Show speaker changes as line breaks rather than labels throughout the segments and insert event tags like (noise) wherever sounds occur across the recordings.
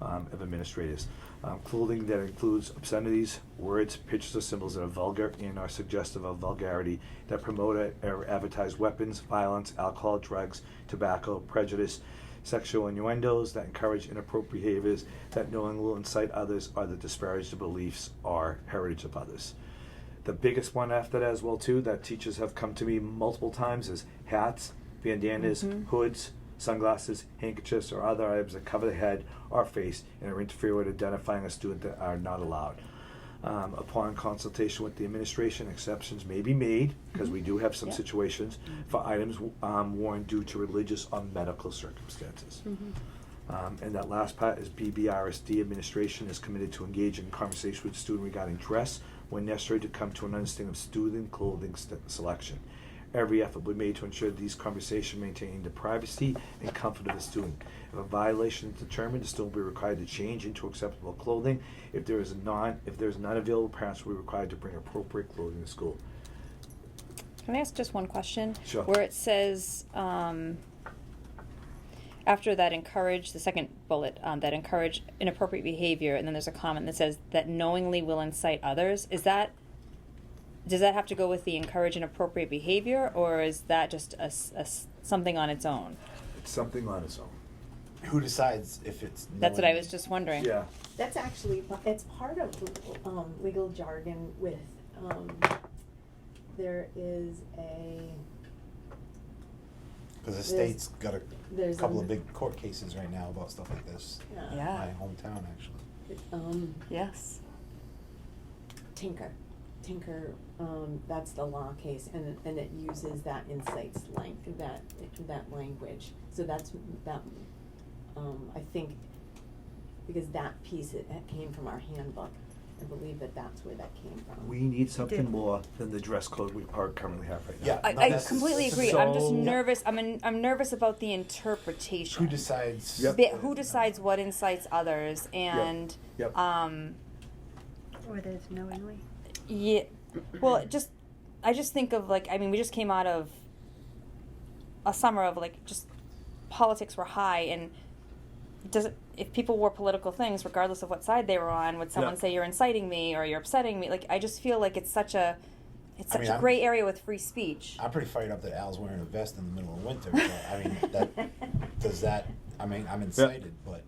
um, of administrators. Um, clothing that includes obscenities, words, pictures, or symbols that are vulgar and are suggestive of vulgarity, that promote or advertise weapons, violence, alcohol, drugs, tobacco, prejudice, sexual innuendos, that encourage inappropriate behaviors, that knowingly will incite others, or that disparage the beliefs or heritage of others. The biggest one after that as well too that teachers have come to me multiple times is hats, bandanas,
Mhm.
hoods, sunglasses, handkerchiefs, or other items that cover the head or face and are interfere with identifying a student that are not allowed. Um, upon consultation with the administration, exceptions may be made because we
Mhm.
do have some
Yeah.
situations for items um, worn due to religious or medical circumstances.
Mm-hmm.
Um, and that last part is BBRSD administration is committed to engage in conversation with student regarding dress when necessary to come to an understanding of student clothing st- selection. Every effort will be made to ensure these conversations maintain the privacy and comfort of the student. If a violation is determined, the student will be required to change into acceptable clothing. If there is non, if there is none available, parents will be required to bring appropriate clothing to school.
Can I ask just one question?
Sure.
Where it says, um, after that encourage, the second bullet, um, that encourage inappropriate behavior, and then there's a comment that says that knowingly will incite others, is that, does that have to go with the encourage inappropriate behavior, or is that just a s a s something on its own?
It's something on its own.
Who decides if it's?
That's what I
knowing?
was just wondering.
Yeah.
That's actually, it's part of um, legal jargon with, um, there is a,
Cause the
There's-
state's got a
there's
couple
an-
of big court cases right now about stuff like this.
Yeah.
In
Yeah.
My hometown, actually.
um,
Yes.
Tinker. Tinker, um, that's the law case, and, and it uses that insights length, that, that language. So that's, that, um, I think, because that piece, it, it came from our handbook. I believe that that's where that came from.
We need something
did.
more than the dress code we are currently have right now.
Yeah.
I,
No,
I
that's-
completely agree, I'm just
So-
nervous, I'm, in- I'm nervous about the interpretation.
Who decides?
Yep.
Bit- Who decides what incites others, and,
Yep.
um,
Or there's knowingly.
Yeah. Well, it just I just think of like I mean we just came out of a summer of like just politics were high and does it, if people wore political things regardless of what side they were on would someone
Yeah.
say you're inciting me or you're upsetting me like I just feel like it's such a it's
I
such
mean,
a
I'm-
gray area with free speech.
I'm pretty fired up that Al's wearing a vest in the middle of winter. But, I
(laughs)
mean,
(laughs)
that does that? I mean, I'm incited, but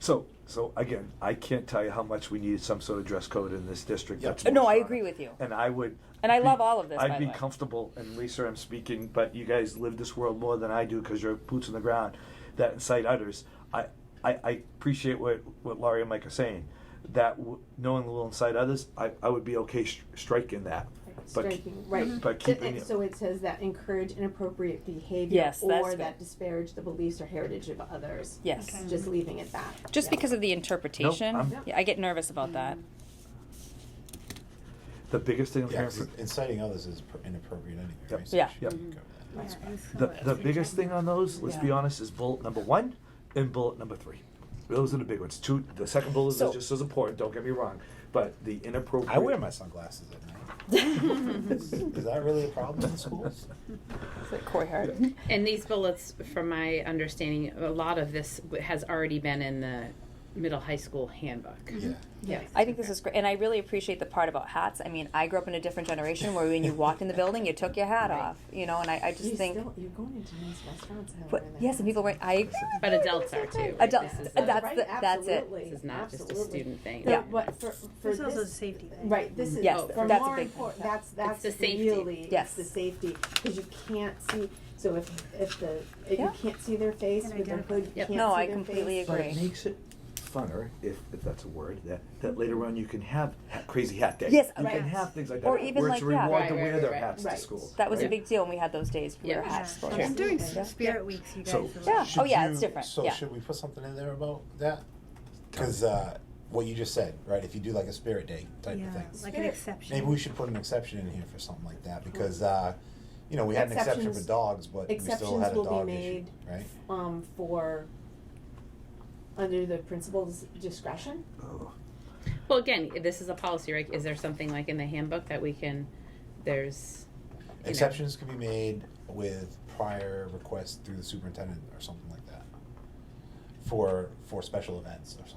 So, so again, I can't tell you how much we need some sort of dress code in this district.
Yeah.
That's
Uh, no,
more
I
solid.
agree with you.
And I would.
And I love all of this,
I'd
by the
be
way.
comfortable, and Lisa, I'm speaking, but you guys live this world more than I do because you're boots on the ground that incite others. I, I, I appreciate what what Laurie and Mike are saying. That w- knowing will incite others, I, I would be okay sh- striking that. But k-
striking, right.
but
So-
keeping
and
it-
So it says that encourage inappropriate behavior.
Yes, that's
Or
good.
that disparage the beliefs or heritage of others.
Yes.
Okay.
Just leaving it that.
Just
yeah.
because of the interpretation,
I'm-
yeah, I get nervous about (laughs) that.
the biggest thing I'm
yeah,
hearing
'cause
from-
inciting others is per- inappropriate anyway.
Yep.
Right? So
Yeah.
we should
Yep.
go with that.
That's
Yeah, it was
The,
somewhat
the
same
biggest
time.
thing on those, let's be
Yeah.
honest, is bullet number one and bullet number three. Those are the big ones. Two, the second bullet
So-
is just as important. Don't get me wrong, but the inappropriate.
I wear
(laughs)
my sunglasses at night. is, is that really a problem in
(laughs)
schools?
(laughs) It's like Corey Hart.
And these bullets, from my understanding, a lot of this w- has already been in the middle high school handbook.
Yeah.
Yes.
I think this is great, and I really appreciate the part about hats. I mean, I grew up in a different generation where when you walked in the building, you took your hat
Right.
off, you know. And I, I just
You
think,
still, you're going into nice restaurants. that
but
wear that.
yes, and people were I
But adults are too. right?
Adults-
This is
that's
a-
Right,
the- that's it.
absolutely,
This is not just a
absolutely.
student thing.
No,
Yeah.
But for, for
There's
this.
also a safety thing.
Right, this is,
Yes,
for
that's a
more
big thing.
important, that's, that's
the safety.
really, it's
Yes.
the safety, cause you can't see, so if, if the, if you
Yeah.
can't see their face
And
with their
identify.
hood, you can't
Yep.
see their
No,
face.
I completely
But it
agree.
makes it funner, if, if that's a word, that, that later on you can have ha- crazy hat day.
Yes,
you
right.
can have things like that.
Or even
where
like,
it's a
yeah.
reward
Right,
to
right,
wear
right,
their
right.
hats to
Right.
school.
that was a
right?
big deal when we had those days. We
Yeah.
wear hats.
Yeah.
for
I'm
hats.
doing
Yeah.
spirit weeks, you guys.
So-
are like-
Yeah. Oh,
Should
yeah,
you-
it's different,
So
yeah.
should we put something in there about that? Because uh, what you just said, right? If you do like a spirit day type
Yeah,
of thing,
like an
Spirit.
exception.
maybe we should put an exception in here for something like that because uh, you know we had an exception for
Exceptions-
dogs, but we still had a
exceptions will be
dog
made.
issue, right?
um, for, under the principal's discretion.
Oh.
Well, again, this is a policy, right? Is there something like in the handbook that we can, there's, know.
Exceptions can be made with prior request through the superintendent or something like that for for special events or something.